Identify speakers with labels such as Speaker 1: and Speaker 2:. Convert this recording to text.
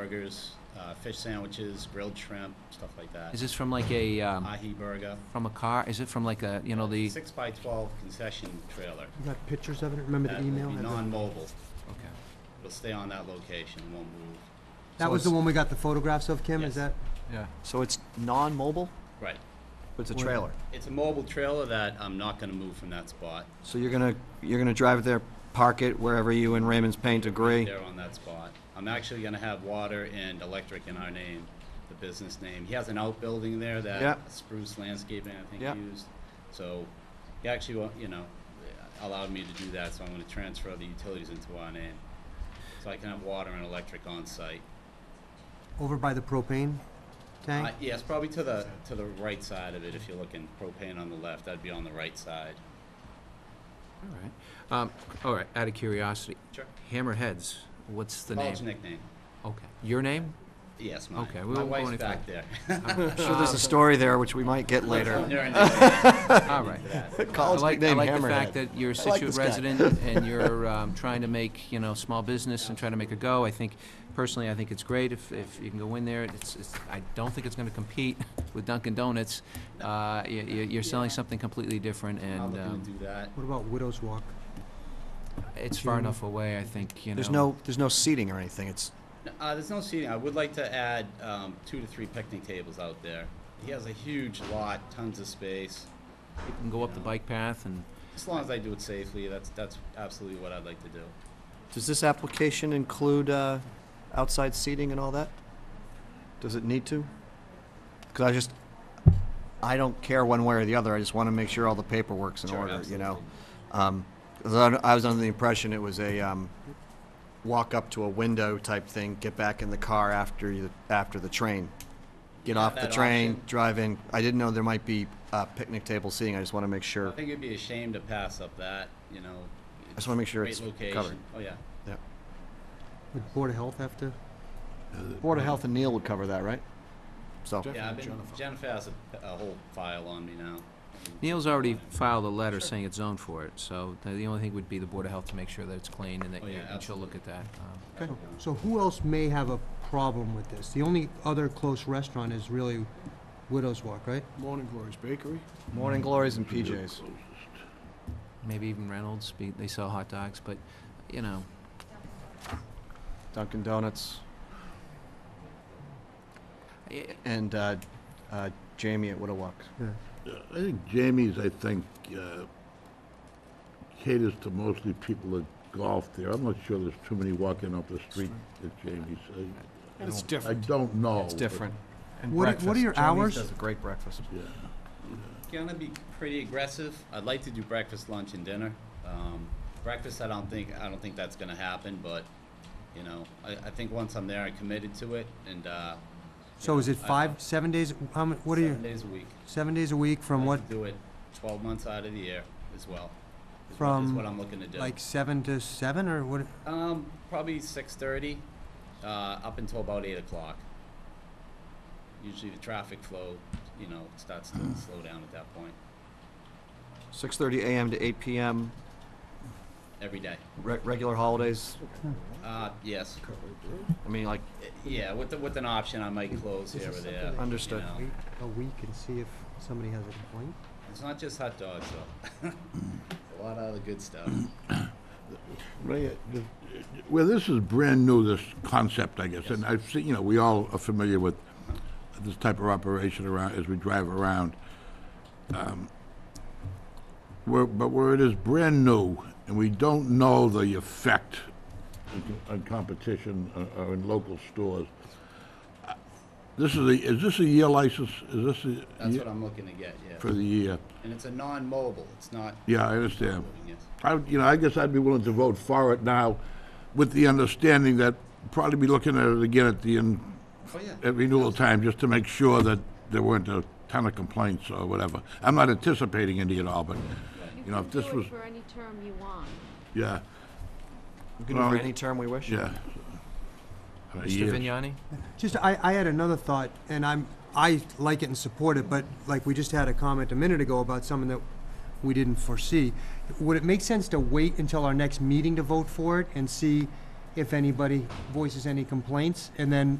Speaker 1: burgers, uh, fish sandwiches, grilled shrimp, stuff like that.
Speaker 2: Is this from like a, um,
Speaker 1: Ahi burger.
Speaker 2: from a car? Is it from like a, you know, the, okay.
Speaker 1: Six by twelve concession trailer.
Speaker 3: You got pictures of it? Remember the
Speaker 1: That will
Speaker 3: email?
Speaker 1: be
Speaker 3: Had the-
Speaker 1: non-mobile. It'll stay on that location, it won't move.
Speaker 3: That
Speaker 4: So
Speaker 3: was the
Speaker 4: it's-
Speaker 3: one we got the photographs of, Kim,
Speaker 1: Yes.
Speaker 3: is that?
Speaker 4: Yeah,
Speaker 5: So it's non-mobile,
Speaker 1: Right.
Speaker 4: but it's a
Speaker 3: Well-
Speaker 4: trailer.
Speaker 1: It's a mobile trailer that I'm not gonna move from that spot.
Speaker 5: so you're gonna, you're gonna drive it there, park it wherever you and Raymond's Paint agree?
Speaker 1: There on that spot. I'm actually gonna have water and electric in our name, the business name. He has an outbuilding there
Speaker 5: Yeah.
Speaker 1: that Spruce Landscaping, I
Speaker 5: Yeah.
Speaker 1: think, used. So he actually, wa- you know, allowed me to do that, so I'm gonna transfer the utilities into our name. So I can have water and electric on site.
Speaker 3: Over by the propane
Speaker 1: Uh,
Speaker 3: tank?
Speaker 1: yes, probably to the, to the right side of it, if you're looking propane on the left, that'd be on the right side.
Speaker 2: all right. Um, all right, out of curiosity,
Speaker 1: Sure.
Speaker 2: Hammerheads, what's the
Speaker 1: College
Speaker 2: name?
Speaker 1: nickname.
Speaker 2: Okay, your name?
Speaker 1: Yes, mine.
Speaker 2: Okay, we
Speaker 1: My
Speaker 2: won't go
Speaker 1: wife's
Speaker 2: any
Speaker 1: back there.
Speaker 5: I'm sure
Speaker 2: Ah.
Speaker 5: there's a story there, which we might get later.
Speaker 1: They're in there.
Speaker 2: All right.
Speaker 5: College
Speaker 2: I like, I
Speaker 5: nickname
Speaker 2: like the fact
Speaker 5: Hammerhead.
Speaker 2: that you're a
Speaker 5: I like
Speaker 2: Situate
Speaker 5: this guy.
Speaker 2: resident and you're um, trying to make, you know, small business and trying to make a go. I think, personally, I think it's great if, if you can go in there. It's, it's, I don't think it's gonna compete with Dunkin' Donuts. Uh, you, you- you're selling something completely different
Speaker 1: I'm
Speaker 2: and,
Speaker 1: looking to
Speaker 2: um,
Speaker 1: do that.
Speaker 3: What about Widow's Walk?
Speaker 2: it's far enough away, I think, you know.
Speaker 5: There's no, there's no seating or anything, it's,
Speaker 1: Uh, there's no seating. I would like to add um, two to three picnic tables out there. He has a huge lot, tons of space.
Speaker 2: You can go up the bike path and,
Speaker 1: As long as I do it safely, that's that's absolutely what I'd like to do.
Speaker 5: does this application include, uh, outside seating and all that? Does it need to? Cause I just, I don't care one way or the other, I just wanna make sure all the paperwork's in
Speaker 1: Sure,
Speaker 5: order, you know?
Speaker 1: absolutely.
Speaker 5: Um, 'cause I I was under the impression it was a, um, walk up to a window type thing, get back in the car after you, after the train. Get
Speaker 1: Yeah,
Speaker 5: off the
Speaker 1: that
Speaker 5: train,
Speaker 1: option.
Speaker 5: drive in. I didn't know there might be, uh, picnic table seating, I just wanna make
Speaker 1: I
Speaker 5: sure.
Speaker 1: think it'd be a shame to pass up that. You know. I
Speaker 5: just wanna make sure
Speaker 1: great
Speaker 5: it's
Speaker 1: location.
Speaker 5: covered.
Speaker 1: Oh yeah.
Speaker 5: Yeah.
Speaker 3: Would Board of Health have to?
Speaker 5: Board of Health and Neil would cover that, right? So,
Speaker 1: Yeah. I've been, Jennifer. has a, a whole file on me now.
Speaker 2: Neil's already filed a letter saying it's zoned for it, so the- the only thing would be the Board of Health to make sure that it's clean and that,
Speaker 1: Oh,
Speaker 2: you-
Speaker 1: yeah,
Speaker 2: and she'll look at that. um,
Speaker 3: So who else may have a problem with this? The only other close restaurant is really Widow's Walk, right?
Speaker 6: Morning Glory's Bakery.
Speaker 5: Morning Glories and PJs.
Speaker 2: Um, Maybe even Reynolds, be- they sell hot dogs, but, you know,
Speaker 5: Dunkin' Donuts,
Speaker 2: I-
Speaker 5: and, uh, uh, Jamie at Widowalk.
Speaker 6: I think Jamie's, I think, uh, caters to mostly people that golf there. I'm not sure there's too many walking up the street at Jamie's. I-
Speaker 4: It's
Speaker 6: I
Speaker 4: different.
Speaker 6: don't know.
Speaker 5: It's different. And
Speaker 3: What are- what are
Speaker 5: breakfast.
Speaker 3: your
Speaker 5: Jamie's
Speaker 3: hours?
Speaker 5: does a great breakfast.
Speaker 6: Yeah.
Speaker 1: Gonna be pretty aggressive. I'd like to do breakfast, lunch, and dinner. Um, breakfast, I don't think I don't think that's gonna happen, but you know, I, I think once I'm there, I'm committed to it, and uh,
Speaker 3: So is it
Speaker 1: I-
Speaker 3: five, seven days, how many, what are
Speaker 1: seven
Speaker 3: you,
Speaker 1: days a week.
Speaker 3: seven days a week
Speaker 1: I
Speaker 3: from what,
Speaker 1: could Do it twelve months out of the year as well. is what- is
Speaker 3: From,
Speaker 1: what I'm looking to do.
Speaker 3: like seven to seven or what?
Speaker 1: Um, probably six thirty, uh, up until about eight o'clock. Usually the traffic flow, you know, starts to slow down at that point,
Speaker 5: Six thirty AM to eight PM,
Speaker 1: every day.
Speaker 5: re- regular holidays,
Speaker 1: Uh, yes,
Speaker 5: I mean, like,
Speaker 1: yeah, with the, with an option, I might close here or there. you
Speaker 5: Understood.
Speaker 1: know.
Speaker 3: Wait a week and see if somebody has a complaint?
Speaker 1: It's not just hot dogs, though. A lot of other good stuff.
Speaker 6: Right, uh, Well, this is brand new, this concept, I guess, and I've seen, you know, we all are familiar with this type of operation around, as we drive around. Um, Where, but where it is brand new, and we don't know the effect on co- on competition uh, or in local stores. uh, This is a, is this a year license? Is this a?
Speaker 1: That's what I'm looking to get, yeah.
Speaker 6: For the year?
Speaker 1: And it's a non-mobile, it's not.
Speaker 6: Yeah, I understand.
Speaker 1: Yes.
Speaker 6: I, would- you know, I guess I'd be willing to vote for it now with the understanding that probably be looking at it again at the end,
Speaker 1: Oh, yeah.
Speaker 6: at renewal time, just to make sure that there weren't a ton of complaints or whatever. I'm not anticipating any at all, but, you know, if this was,
Speaker 7: You can do it for any term you want.
Speaker 6: yeah,
Speaker 5: we can do
Speaker 6: Well,
Speaker 5: it any term we wish.
Speaker 6: yeah. Uh,
Speaker 2: Mr.
Speaker 6: years.
Speaker 2: Vignani?
Speaker 3: Just, I, I had another thought, and I'm, I like it and support it, but like we just had a comment a minute ago about something that we didn't foresee. Would it make sense to wait until our next meeting to vote for it and see if anybody voices any complaints, and then